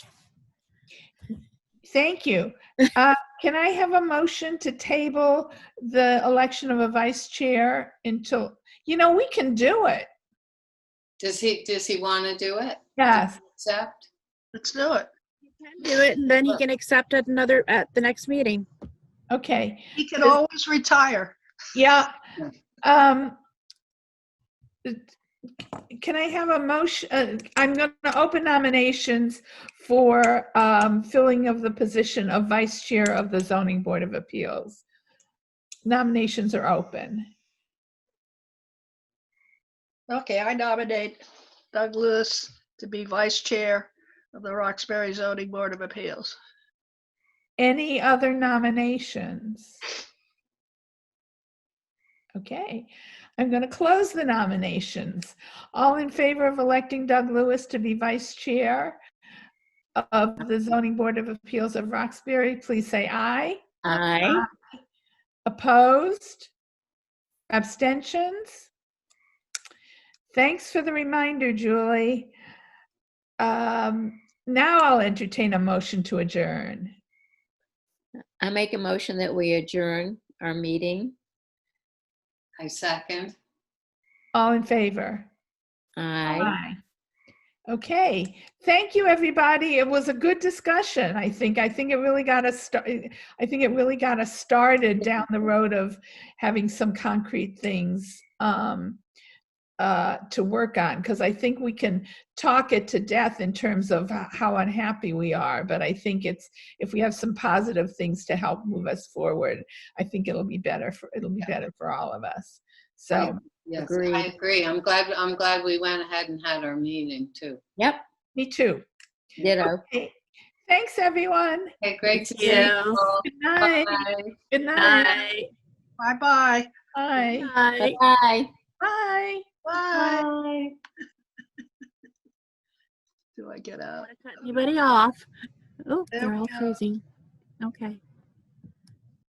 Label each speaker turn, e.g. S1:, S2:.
S1: Thank you. Uh, Can I have a motion to table the election of a vice chair until, you know, we can do it.
S2: Does he, does he want to do it?
S1: Yes.
S2: Accept?
S3: Let's do it.
S4: can do it, and then he can accept at another, at the next meeting.
S1: Okay,
S3: He can always retire.
S1: yeah. Um Can I have a motion, uh, I'm going to open nominations for um filling of the position of vice chair of the zoning board of appeals. Nominations are open.
S3: Okay, I nominate Doug Lewis to be vice chair of the Roxbury Zoning Board of Appeals.
S1: Any other nominations? Okay, I'm going to close the nominations. All in favor of electing Doug Lewis to be vice chair of the Zoning Board of Appeals of Roxbury, please say aye.
S4: Aye.
S1: Opposed? Abstentions? Thanks for the reminder, Julie. Um, Now I'll entertain a motion to adjourn.
S5: I make a motion that we adjourn our meeting.
S2: I second.
S1: All in favor?
S5: Aye.
S1: Okay, thank you, everybody. It was a good discussion, I think. I think it really got us, sta- I think it really got us started down the road of having some concrete things um, uh, to work on, because I think we can talk it to death in terms of h- how unhappy we are, but I think it's, if we have some positive things to help move us forward, I think it'll be better, for it'll be better for all of us. So,
S2: Yes, I
S5: Agreed.
S2: agree. I'm glad, I'm glad we went ahead and had our meeting too.
S5: Yep,
S1: me too.
S5: ditto.
S1: Okay. Thanks, everyone.
S2: Okay, great to see you.
S4: Yeah.
S2: all.
S1: Good night.
S2: Bye.
S1: Good night.
S3: Bye-bye.
S1: Bye.
S4: Aye.
S5: Bye.
S1: Bye.
S3: Bye. Do I get out?
S4: Wanna cut Anybody off? Oh,
S3: There
S4: they're
S3: we
S4: all
S3: go.
S4: freezing. Okay.